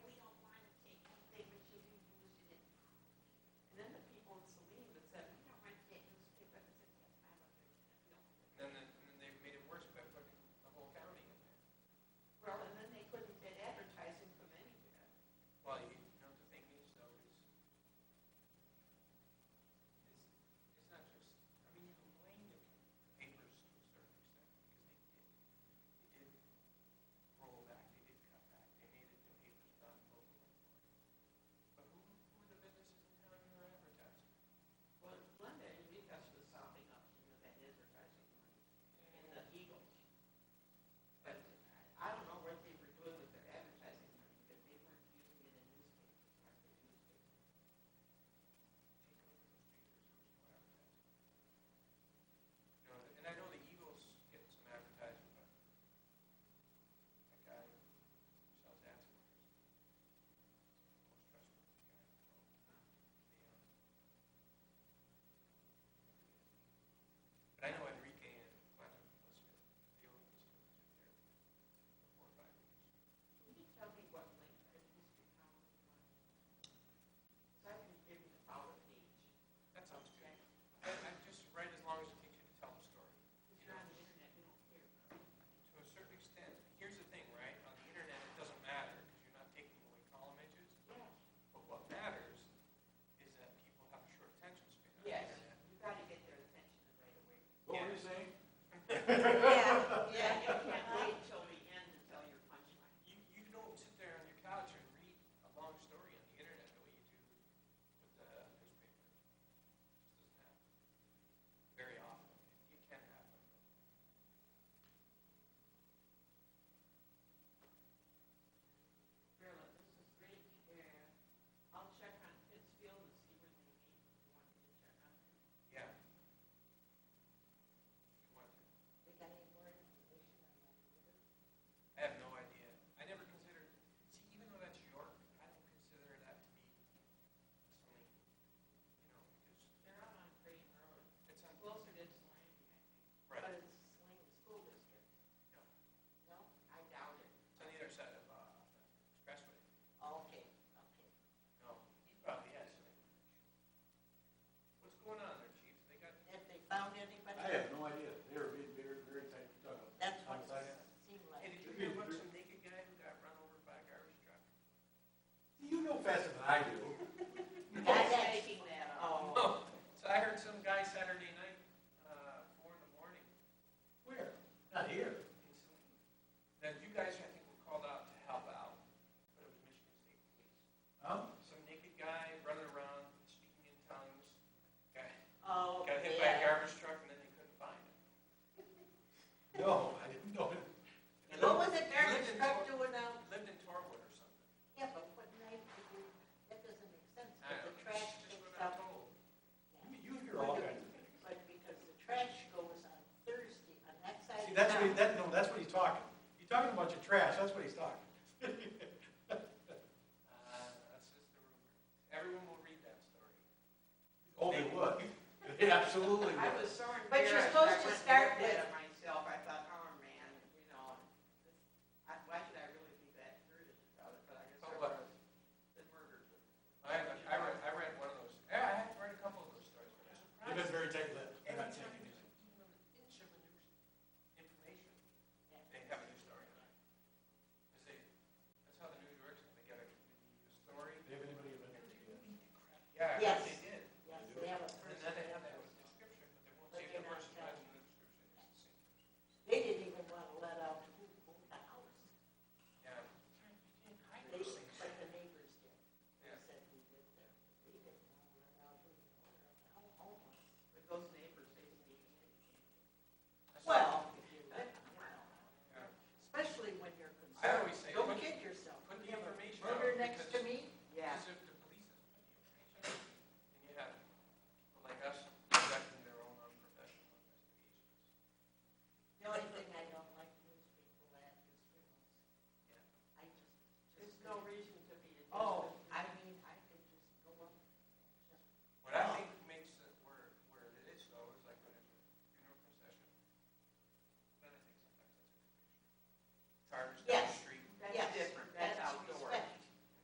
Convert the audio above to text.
uh, Oh, specify, I do. That's That's making that up. Oh, so I heard some guy Saturday night, uh, four in the morning, Where? Not here. in Saline. Now, you guys, I think, were called out to help out, but it was Michigan State Police. Huh? Some naked guy running around, speaking in tongues, guy, Oh, got hit by a yeah. garbage truck, and then they couldn't find him. No, I didn't know. And What was a then garbage truck doing out? Lived in Torwood or something. Yeah, but what night did you, that doesn't make sense, I because don't the know, trash that's just goes what I'm out, told. You hear all kinds of things. but because the trash goes on Thursday, on that side See, of that's what, he- town. that, no, that's what he's talking. He's talking a bunch of trash, that's what he's talking. Uh, that's just the rumor. Everyone will read that story. Oh, they would. They absolutely I would. was so embarrassed. But you're supposed I to went and start looked at with- it Myself, I thought, oh, man, you know, this- I- why should I really be that curious about it, but I guess I Oh, was. what? The murder. I, I read, I read one of those, yeah, I have read a couple of those stories, but I'm They've been surprised. very tight-lipped. They're Every not time taking there's it. even an inch of a new information, they have a new story on it. Cause they, that's how the news works, they get a, a story. Do you have anybody who Yeah. Yes, Oh,